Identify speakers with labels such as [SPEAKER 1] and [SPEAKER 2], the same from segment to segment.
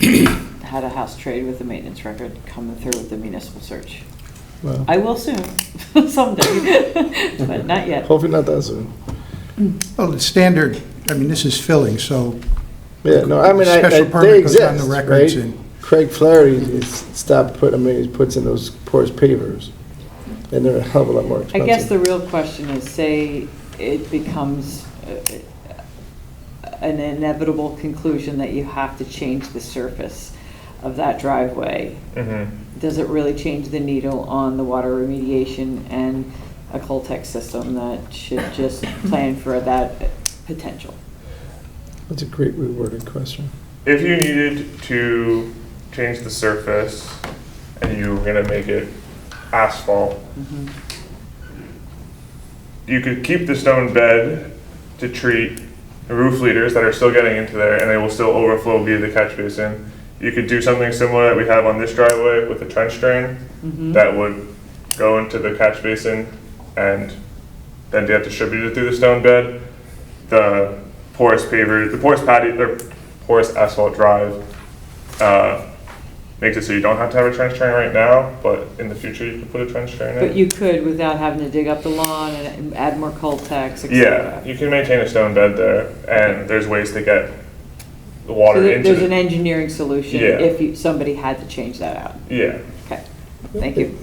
[SPEAKER 1] had a house trade with a maintenance record coming through with the municipal search.
[SPEAKER 2] Well,
[SPEAKER 1] I will soon, someday, but not yet.
[SPEAKER 2] Hopefully not that soon.
[SPEAKER 3] Well, it's standard, I mean, this is filling, so
[SPEAKER 2] Yeah, no, I mean, I, I,
[SPEAKER 3] Special
[SPEAKER 2] they
[SPEAKER 3] permit goes on
[SPEAKER 2] exist,
[SPEAKER 3] the records
[SPEAKER 2] right?
[SPEAKER 3] and-
[SPEAKER 2] Craig Flaherty is stopped putting, I mean, he puts in those porous pavers, and they're a hell of a lot more
[SPEAKER 1] I
[SPEAKER 2] expensive.
[SPEAKER 1] guess the real question is, say it becomes uh, an inevitable conclusion that you have to change the surface of that driveway.
[SPEAKER 4] Mm-hmm.
[SPEAKER 1] Does it really change the needle on the water remediation and a Coltech system that should just plan for that potential?
[SPEAKER 2] That's a great reworded question.
[SPEAKER 4] If you needed to change the surface and you were gonna make it asphalt,
[SPEAKER 1] Mm-hmm.
[SPEAKER 4] you could keep the stone bed to treat roof leaders that are still getting into there and they will still overflow via the catch basin. You could do something similar that we have on this driveway with a trench drain
[SPEAKER 1] Mm-hmm.
[SPEAKER 4] that would go into the catch basin and then get distributed through the stone bed. The porous paver, the porous patio, or porous asphalt drive, uh, makes it so you don't have to have a trench drain right now, but in the future you could put a trench drain in.
[SPEAKER 1] But you could without having to dig up the lawn and add more Coltechs, et
[SPEAKER 4] Yeah,
[SPEAKER 1] cetera.
[SPEAKER 4] you can maintain a stone bed there, and there's ways to get
[SPEAKER 1] So
[SPEAKER 4] the water
[SPEAKER 1] there-
[SPEAKER 4] into.
[SPEAKER 1] there's an
[SPEAKER 4] the-
[SPEAKER 1] engineering solution
[SPEAKER 4] Yeah.
[SPEAKER 1] if you- somebody had to change that out.
[SPEAKER 4] Yeah,
[SPEAKER 1] Okay, thank you.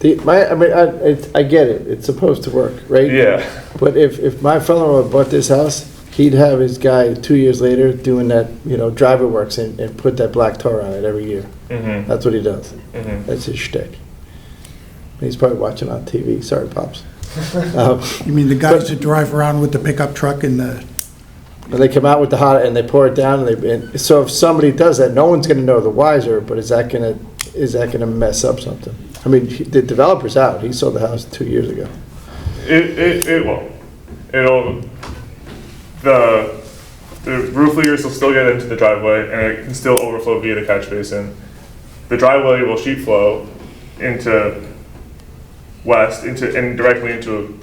[SPEAKER 2] The, my, I mean, I, it's, I get it, it's supposed to work, right?
[SPEAKER 4] yeah,
[SPEAKER 2] But if, if my fellow had bought this house, he'd have his guy two years later doing that, you know, driver works and, and put that black tar on it every year.
[SPEAKER 4] mm-hmm,
[SPEAKER 2] That's what he does.
[SPEAKER 4] mm-hmm.
[SPEAKER 2] That's his shtick. He's probably watching on TV. Sorry, pops. um,
[SPEAKER 3] you mean the guys
[SPEAKER 2] But-
[SPEAKER 3] that drive around with the pickup truck and the,
[SPEAKER 2] and they come out with the hot and they pour it down. And they and so if somebody does that, no one's going to know the wiser. But is that going to is that going to mess up something? I mean, he- the developer's out. He sold the house two years ago.
[SPEAKER 4] It, it, it won't. It'll, the, the roof leaders will still get into the driveway, and it can still overflow via the catch basin. The driveway will sheet flow into west, into, and directly into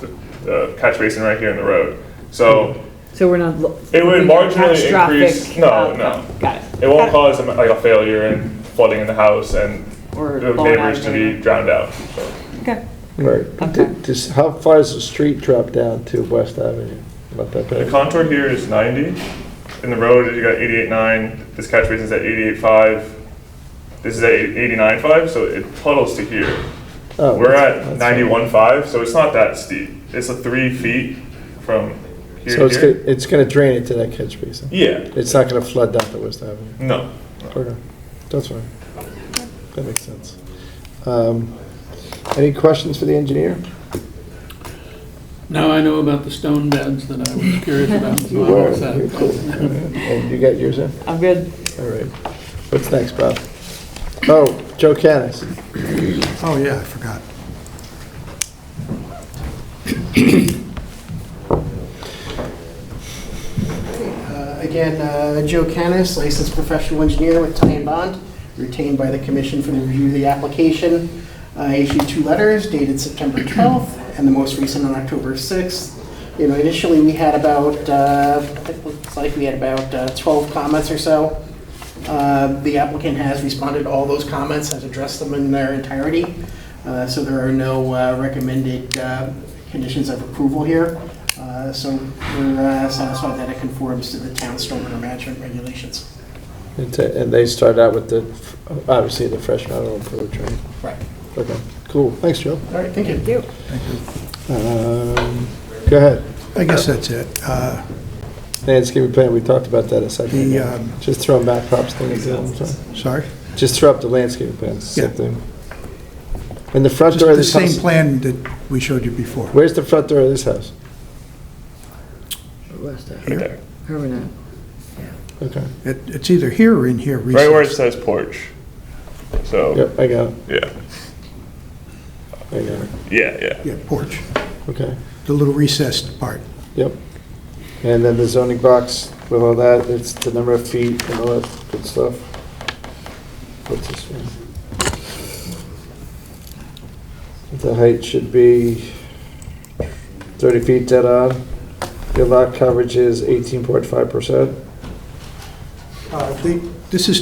[SPEAKER 4] the, the catch basin right here in the road. So,
[SPEAKER 1] So we're not. lo-
[SPEAKER 4] It would
[SPEAKER 1] looking at
[SPEAKER 4] marginally
[SPEAKER 1] catastrophic
[SPEAKER 4] increase- no,
[SPEAKER 1] outcome.
[SPEAKER 4] no.
[SPEAKER 1] Got it.
[SPEAKER 4] It won't
[SPEAKER 1] Got
[SPEAKER 4] cause um, like a failure and flooding in the house and
[SPEAKER 1] Or
[SPEAKER 4] the
[SPEAKER 1] blown out
[SPEAKER 4] neighbors
[SPEAKER 1] of
[SPEAKER 4] to
[SPEAKER 1] there.
[SPEAKER 4] be drowned out. So,
[SPEAKER 1] Okay,
[SPEAKER 2] Right.
[SPEAKER 1] Okay.
[SPEAKER 2] Just how far does the street drop down to West Avenue? Not that
[SPEAKER 4] The
[SPEAKER 2] bad.
[SPEAKER 4] contour here is 90. In the road, you got 88.9. This catch basin is at 88.5. This is at 89.5, so it puddles to here.
[SPEAKER 2] Oh,
[SPEAKER 4] We're
[SPEAKER 2] that's-
[SPEAKER 4] at
[SPEAKER 2] that's fine.
[SPEAKER 4] 91.5, so it's not that steep. It's a three feet from here
[SPEAKER 2] So
[SPEAKER 4] to
[SPEAKER 2] it's
[SPEAKER 4] here.
[SPEAKER 2] gonna, it's gonna drain into that catch basin.
[SPEAKER 4] Yeah.
[SPEAKER 2] It's not gonna flood down to West Avenue.
[SPEAKER 4] No.
[SPEAKER 2] Okay, that's fine. That makes sense. Um, Any questions for the engineer?
[SPEAKER 5] Now I know about the stone beds that I was curious about. so
[SPEAKER 2] You
[SPEAKER 5] I'm
[SPEAKER 2] were,
[SPEAKER 5] all set.
[SPEAKER 2] you're cool. All right. And you got yours in?
[SPEAKER 1] I'm good.
[SPEAKER 2] All right. What's next, Bob? Oh, Joe Canis.
[SPEAKER 3] oh yeah, I forgot.
[SPEAKER 6] Uh, Again, uh, Joe Canis, licensed professional engineer with Ty and Bond, retained by the commission for the review of the application. I issued two letters dated September 12th and the most recent on October 6th. You know, initially, we had about, uh, it looks like we had about uh, 12 comments or so. Uh, The applicant has responded to all those comments, has addressed them in their entirety, Uh, so there are no uh, recommended uh, conditions of approval here. Uh, So we're uh, satisfied that it conforms to the town stormwater management regulations.
[SPEAKER 2] And t- and they start out with the, f- obviously, the fresh model of the train.
[SPEAKER 6] Right.
[SPEAKER 2] Okay, cool. Thanks, Joe.
[SPEAKER 6] All right, thank you.
[SPEAKER 2] Um, Go ahead.
[SPEAKER 3] I guess that's it. Uh,
[SPEAKER 2] Landscaping plan, we talked about that a second
[SPEAKER 3] The,
[SPEAKER 2] ago.
[SPEAKER 3] um,
[SPEAKER 2] Just throwing back props things in. so.
[SPEAKER 3] Sorry?
[SPEAKER 2] Just throw up the landscaping plan, it's the same
[SPEAKER 3] Yeah.
[SPEAKER 2] thing. And the front
[SPEAKER 3] Just
[SPEAKER 2] door of
[SPEAKER 3] the
[SPEAKER 2] this
[SPEAKER 3] same
[SPEAKER 2] house,
[SPEAKER 3] plan that we showed you before.
[SPEAKER 2] where's the front door of this house?
[SPEAKER 3] Here.
[SPEAKER 2] Okay,
[SPEAKER 3] It- It's either here or in here
[SPEAKER 4] Right where it
[SPEAKER 3] recently.
[SPEAKER 4] says porch. So, Oh.
[SPEAKER 2] yep, I got it,
[SPEAKER 4] yeah.
[SPEAKER 2] I got it,
[SPEAKER 4] Yeah, yeah.
[SPEAKER 3] Yeah, porch,
[SPEAKER 2] okay,
[SPEAKER 3] the little recessed part.
[SPEAKER 2] yep. And then the zoning box with all that, it's the number of feet and all that good stuff. What's this one? The height should be thirty feet dead on. Your lot coverage is eighteen point five percent.
[SPEAKER 3] Uh, they- This is